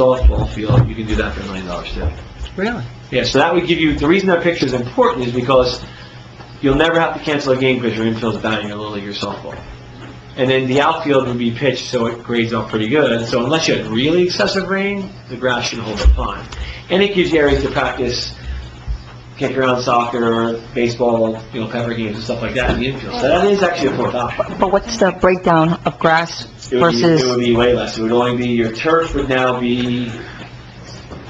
softball field, you can do that for a million dollars too. Really? Yeah, so that would give you, the reason that picture is important is because you'll never have to cancel a game because your infield's batting your little league or softball. And then the outfield would be pitched, so it grades up pretty good. So unless you had really excessive rain, the grass should hold up fine. And it gives you areas to practice kick around soccer, baseball, you know, pepper games and stuff like that in the infield. So that is actually a fourth option. But what's the breakdown of grass It would be, it would versus, be way less. It would only be, your turf would now be,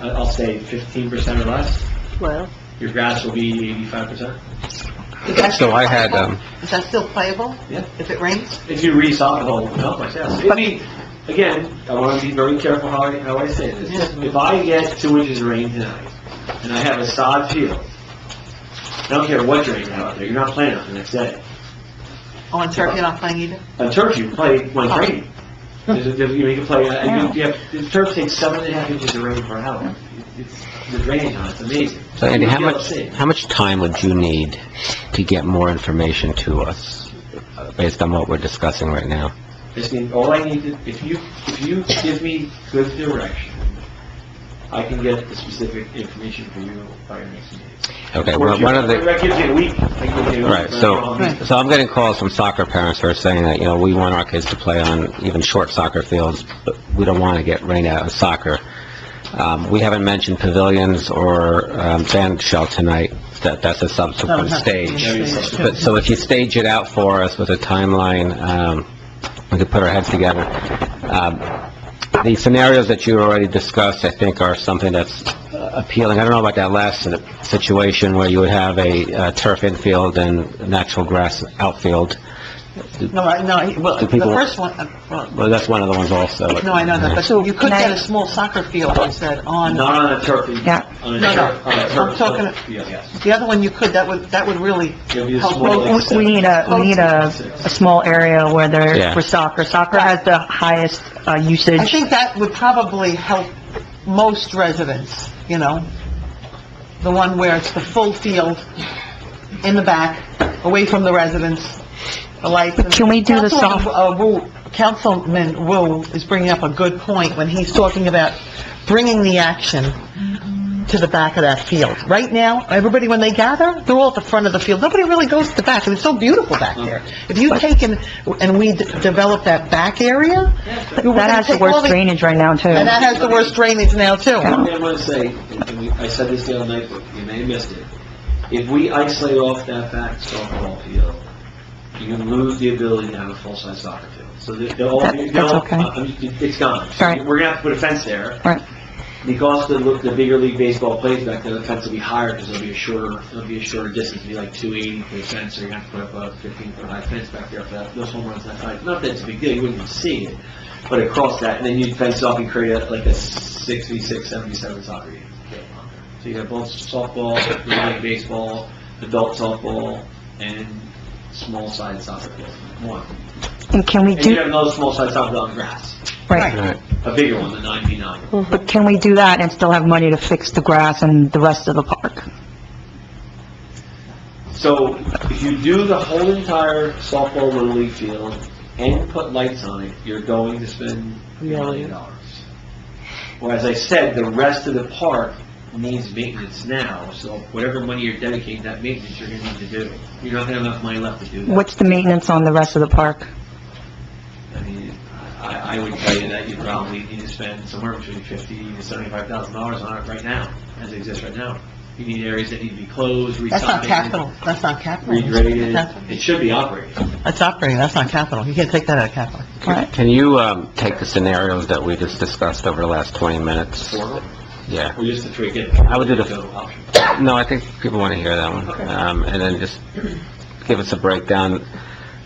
I- I'll say fifteen percent or less. well, Your grass will be eighty-five percent. So I had, um, Is that still playable? Yeah. If it rains? If you re-sod the whole, help myself. I mean, again, I want to be very careful how I, how I say this. If I get two inches of rain tonight, and I have a sod field, I don't care what you're out there, you're not playing on the next day. Oh, and turf, you're not playing either? On turf, you play when it's raining. There's a- there's- You can play, uh, you- you have- the turf takes seven and a half inches of rain per hour. It's, the drainage on it's amazing. so Andy, how You'll much, see. how much time would you need to get more information to us, uh, based on what we're discussing right now? Just need, all I need to, if you, if you give me good direction, I can get the specific information for you by your next meeting. Or Okay, if well, you- one of the, That gives you a week. I can give you a all right, week, but um, so, I'll be- so I'm getting calls from soccer parents who are saying that, you know, we want our kids to play on even short soccer fields, but we don't want to get rained out in soccer. Um, we haven't mentioned pavilions or, um, band shell tonight, that, that's a subsequent stage. That'd be something. But, so if you stage it out for us with a timeline, um, we could put our heads together. Um, the scenarios that you already discussed, I think, are something that's uh, appealing. I don't know about that last si- situation where you would have a uh, turf infield and natural grass outfield. No, I, no, I- well, Do the people- first one, uh, well, Well, that's one of the ones also. no, I know that, So but you could can I- get a small soccer field, I said, on, Not on a turf. you- Yeah. On a No, no. turf, on a I'm turf. talking- Oh, Yeah, yes. the other one you could, that would, that would really It'll be a help. small- we we need a, we need a, a small area where there, Yeah. for soccer. Soccer has the highest, uh, usage. I think that would probably help most residents, you know? The one where it's the full field in the back, away from the residents, the lights. and- Can we do the soft- Councilwoman, uh, Wu- Councilman Wu is bringing up a good point when he's talking about bringing the action to the back of that field. Right now, everybody, when they gather, they're all at the front of the field. Nobody really goes to the back, and it's so beautiful back there. If you take and, and we d- develop that back area, we're That gonna has the take all worst drainage right now, too. and that has the worst drainage now, too. One thing I want to say, and we- I said this the other night, but you may have missed it. If we isolate off that back softball field, you lose the ability to have a full-size soccer field. So they- they'll all, That- they'll- that's okay. I- I'm- it's gone. So Right. We're gonna have to put a fence there. Right. Because the, look- the bigger league baseball plays back there, the fence will be higher because it'll be a shorter, it'll be a shorter distance, it'll be like two eighty for the fence, so you're gonna have to put up a fifteen foot high fence back there for that, those home runs that high. Not that it's a big deal, you wouldn't even see it, but across that, and then you'd fence off and create a- like a six v six, seven v seven soccer game. So you have both softball, little league baseball, adult softball, and small sided soccer field, one. And can we And you do, have another small sided soccer field on grass, right, All right. a bigger one, the nine v nine. but can we do that and still have money to fix the grass and the rest of the park? So if you do the whole entire softball little league field and put lights on it, you're going to spend a million dollars. Whereas I said, the rest of the park needs maintenance now, so whatever money you're dedicating to that maintenance, you're gonna need to do. You're not gonna have enough money left to do that. What's the maintenance on the rest of the park? I mean, I, I would tell you that you probably need to spend somewhere between fifty to seventy-five thousand dollars on it right now, as it exists right now. You need areas that need to be closed, That's not resocked, capital, that's not capital. regraded. It should be operating. That's operating, that's not capital, you can't take that out of capital. Right. Can you, um, take the scenarios that we just discussed over the last 20 minutes? Or Yeah. or just the three again? I would do the- option. No, I think people want to hear that one. Okay. Um, and then just give us a breakdown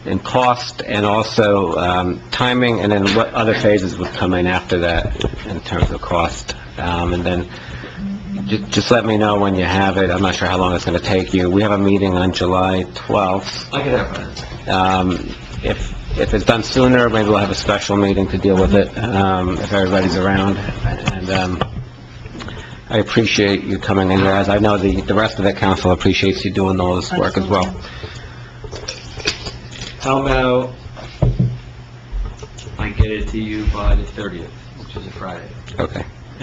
in cost and also, um, timing, and then what other phases would come in after that in terms of cost. Um, and then ju- just let me know when you have it. I'm not sure how long it's going to take you. We have a meeting on July 12th. I could have that. Um, if, if it's done sooner, maybe we'll have a special meeting to deal with it, um, if everybody's around. And, um, I appreciate you coming in, guys. I know the, the rest of the council appreciates you doing all this work as well. How about I get it to you by the thirtieth, which is a Friday? Okay.